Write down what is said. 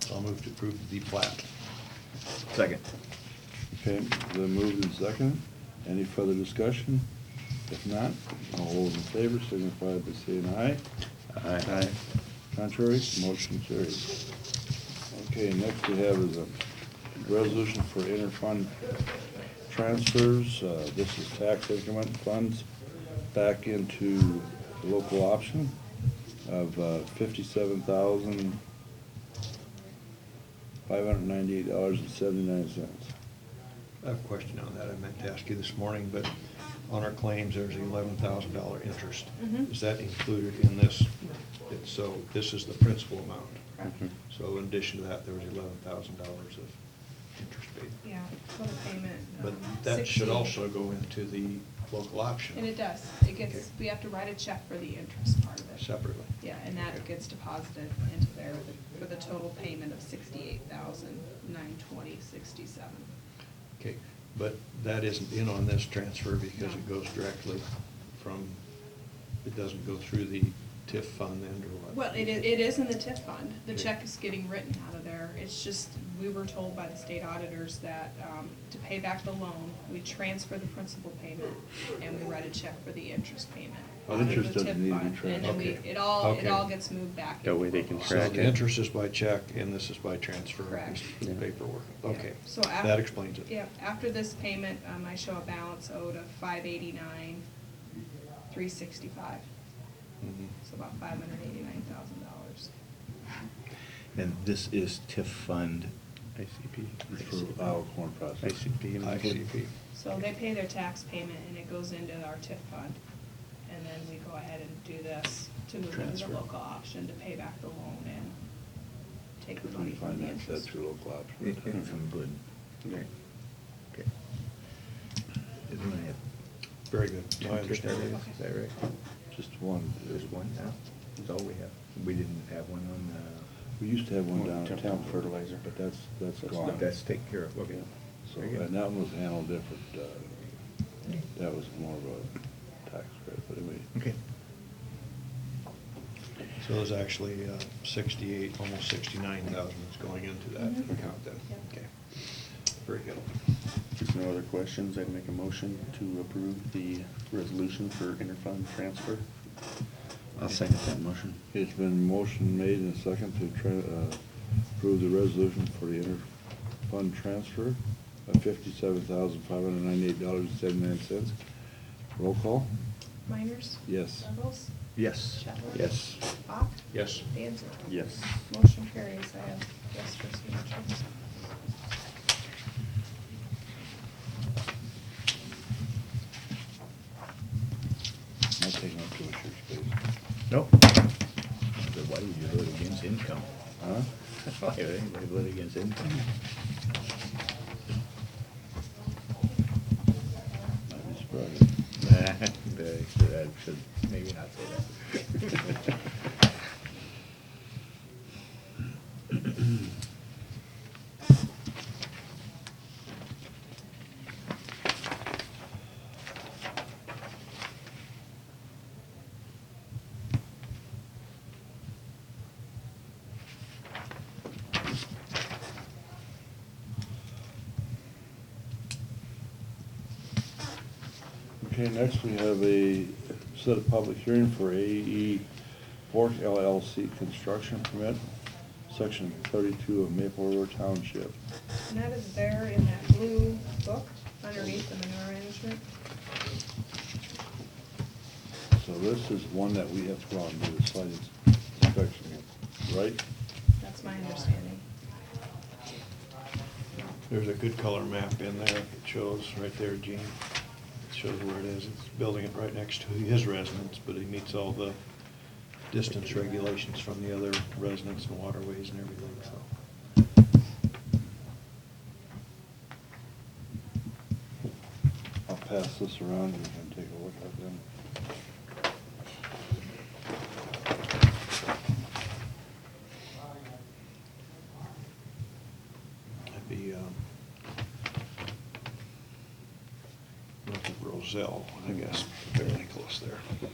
So I'll move to approve the plat. Second. Okay, the move and second. Any further discussion? If not, all those in favor signify by saying aye. Aye. Contrary, motion carries. Okay, next we have is a resolution for interfund transfers. Uh, This is tax increment funds back into local option of uh, $57,598.79. I have a question on that. I meant to ask you this morning, but on our claims, there's eleven thousand dollar interest. Mhm. Is that included in this? It's- So this is the principal amount. Correct. Mhm. So in addition to that, there was eleven thousand dollars of interest paid. Yeah, total payment. But um, that should 16. also go into the local option. And it does. It gets, Okay. we have to write a check for the interest part of it. Separately. Yeah, and that gets deposited into there with- for the total payment of sixty-eight thousand, nine twenty, sixty-seven. Okay, but that isn't in on this transfer because it No. goes directly from, it doesn't go through the TIF fund then or what? Well, it is, it is in the TIF fund. The Okay. check is getting written out of there. It's just, we were told by the state auditors that, um, to pay back the loan, we transfer the principal payment and we write a check for the interest payment. Well, out of the interest doesn't TIF need to be fund. And then transferred. we, it all, it Okay. all gets moved back. That way they can into So track local. the it. interest is by check and this is by transfer. Correct. This is Paperwork, Yeah. okay. So af- That explains it. Yeah, after this payment, um, I show a balance owed of five eighty-nine, three sixty-five. Mhm. So about five hundred eighty-nine thousand dollars. And this is TIF fund. For our corn processing. ICP. ICP. So they pay their tax payment and it goes into our TIF fund. And then we go ahead and do this to move into Transfer. the local option to pay back the loan and take the Because money we from the finance that interest. through local If option. I'm good. Okay. Okay. Is there any- Very good. No, I understand. Okay. Is that right? Just one, There's one now. That's all we have. We didn't have one on, uh, we used to have one Well, down at temp- town fertilizer, but that's, that's uh, gone. that's taken care of, okay. So, Very good. and that one was handled different, uh, that was more of a tax credit, but anyway. Okay. So there's actually uh, sixty-eight, almost sixty-nine thousand that's going into that Mhm. account then. Yep. Okay. Very good. If no other questions, I'd make a motion to approve the resolution for interfund transfer. I'll second that motion. It's been motion made and second to try, uh, approve the resolution for the inter-fund transfer of fifty-seven thousand, five hundred and ninety-eight dollars and seventy-nine cents. Roll call? Miners? Yes. Bubbles? Yes. Chadwick? Yes. Bach? Yes. Danzer? Yes. Motion carries. I have yes for signature. I'll take up to a church space. Nope. Why would you vote against income? Huh? Why would anybody vote against income? I'd be surprised. Nah, they should- I should maybe not say that. Okay, next we have a set of public hearing for AE Fork LLC construction permit, section thirty-two of Maple River Township. And that is there in that blue book underneath the manure management. So this is one that we have to go out and do the site inspection, right? That's my understanding. There's a good color map in there. It shows right there, Gene. It shows where it is. It's building it right next to his residence, but he meets all the distance regulations from the other residents and waterways and everything, so. I'll pass this around and we can take a look at them. That'd be, um, north of Roselle, I guess, fairly close there.